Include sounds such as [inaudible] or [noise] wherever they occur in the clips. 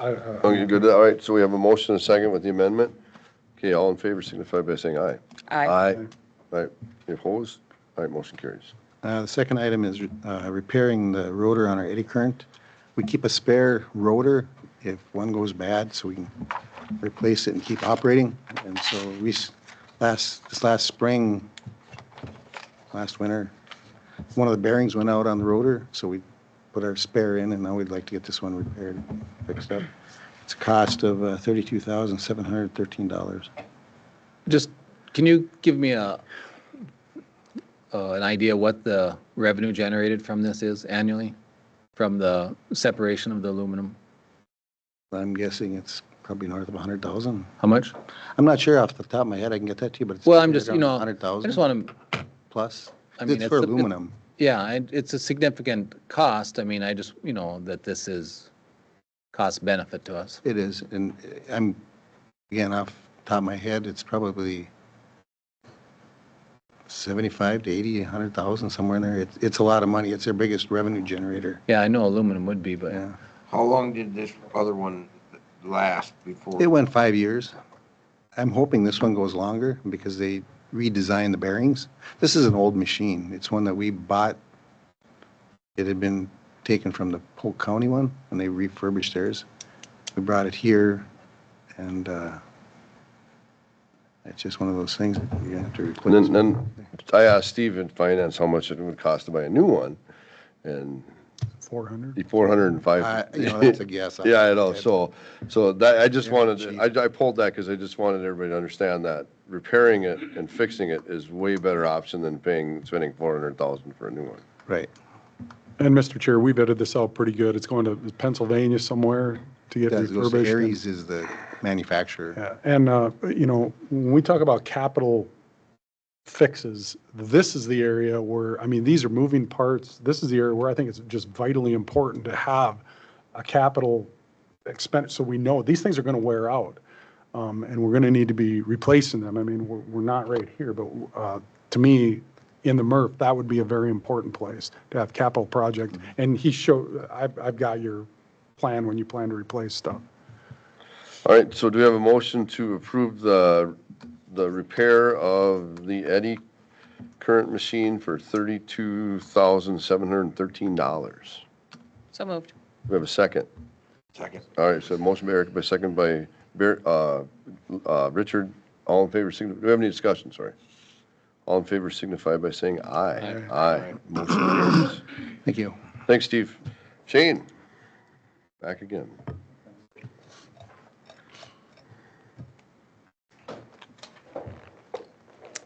I, I- Oh, you're good, all right, so we have a motion and a second with the amendment. Okay, all in favor signify by saying aye. Aye. All right, Any opposed? All right, motion carries. Uh, The second item is uh, repairing the rotor on our eddy current. We keep a spare rotor if one goes bad, so we can replace it and keep operating. And so we, s- last, this last spring, last winter, one of the bearings went out on the rotor, so we put our spare in, and now we'd like to get this one repaired, fixed up. It's a cost of uh, $32,713. Just, can you give me a, uh, an idea what the revenue generated from this is annually? From the separation of the aluminum? I'm guessing it's probably north of 100,000. How much? I'm not sure off the top of my head, I can get that to you, but it's. Well, I'm just, you know, I Hundred thousand just want to, plus. I mean, It's for it's a- it- aluminum. yeah, I- it's a significant cost. I mean, I just, you know, that this is cost benefit to us. It is, and uh, I'm, again, off the top of my head, it's probably seventy-five to eighty, a hundred thousand, somewhere in there. It's, it's a lot of money. It's their biggest revenue generator. Yeah, I know aluminum would be, but Yeah. How long did this other one last before? It went five years. I'm hoping this one goes longer because they redesigned the bearings. This is an old machine. It's one that we bought. It had been taken from the Polk County one and they refurbished theirs. We brought it here and uh, it's just one of those things that you have to And replace. then, then I asked Steve in finance how much it would cost to buy a new one, and 400. he four hundred and I- five. You [laughs] know, that's a guess. Yeah, I know, so, so that, I just Yeah, wanted, cheap. to- I, I pulled that because I just wanted everybody to understand that repairing it and fixing it is way better option than paying, spending four hundred thousand for a new one. Right. And Mr. Chair, we vetted this out pretty good. It's going to Pennsylvania somewhere to get Does- those refurbished. and- Aries is the manufacturer. Yeah, And, uh, you know, when we talk about capital fixes, this is the area where, I mean, these are moving parts. This is the area where I think it's just vitally important to have a capital expense, so we know these things are going to wear out. um, And we're going to need to be replacing them. I mean, we're, we're not right here, but uh, to me, in the MRF, that would be a very important place to have capital project. And he showed, I've, I've got your plan when you plan to replace stuff. All right, so do we have a motion to approve the, the repair of the eddy current machine for thirty-two thousand seven hundred and thirteen dollars? So moved. We have a second. Second. All right, so motion by Eric, by second by Bar- uh, uh, Richard, all in favor, signi- do we have any discussion, sorry? All in favor signify by saying aye. Aye. Motion carries. Thank you. Thanks, Steve. Shane, back again.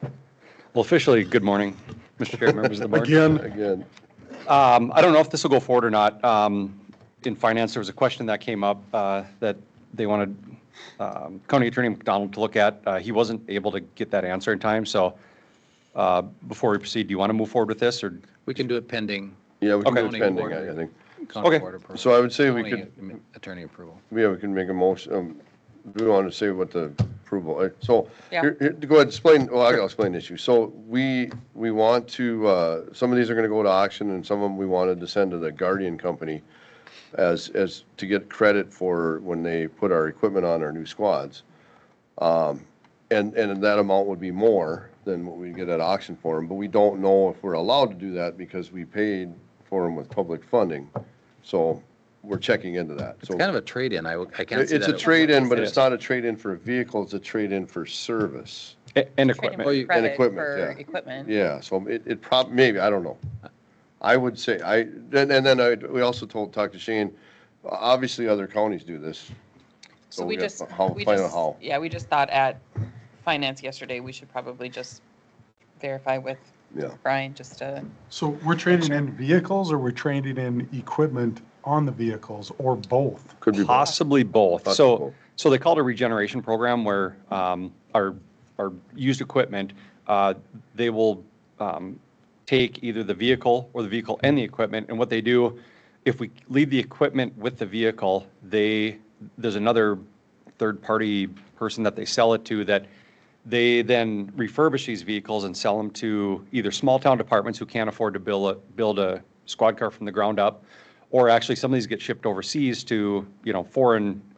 Well, officially, good morning, Mr. Chair, members of the board. Again, Again, Um, I don't know if this will go forward or not. Um, In finance, there was a question that came up uh, that they wanted um, County Attorney McDonald to look at. Uh, He wasn't able to get that answer in time, so uh, before we proceed, do you want to move forward with this, or? we can do it pending yeah, we can do Okay. it pending, I I think. county Okay. board approval. So I would say we county Attorney approval. We have, can make a motion, um, we want to say what the approval, uh, so, Yeah. here, here, go ahead, explain, well, I'll explain the issue. So we, we want to, uh, some of these are going to go to auction and some of them we wanted to send to the Guardian Company as, as, to get credit for when they put our equipment on our new squads. Um, And, and that amount would be more than what we get at auction for them, but we don't know if we're allowed to do that because we paid for them with public funding. So we're checking into that. It's So- kind of a trade-in. I, w- I can't see that. it's a at- trade-in, but It it's is. not a trade-in for a vehicle, it's a trade-in for service. a- And Trade equipment. Oh, you- in and credit equipment, for yeah. equipment. Yeah, so it, it prob, maybe, I don't know. I would say, I, and and then I, we also told, talked to Shane, obviously other counties do this. So we gotta just, fi- how- we find out just, how. yeah, we just thought at finance yesterday, we should probably just verify with Yeah. Brian, just to, So we're trading in vehicles or we're trading in equipment on the vehicles or both? Could be both. Possibly both. Possibly So, both. so they call it a regeneration program where um, our, our used equipment, uh, they will um, take either the vehicle or the vehicle and the equipment. And what they do, if we leave the equipment with the vehicle, they, there's another third-party person that they sell it to that they then refurbish these vehicles and sell them to either small-town departments who can't afford to build, a- build a squad car from the ground up Or actually, some of these get shipped overseas to, you know, foreign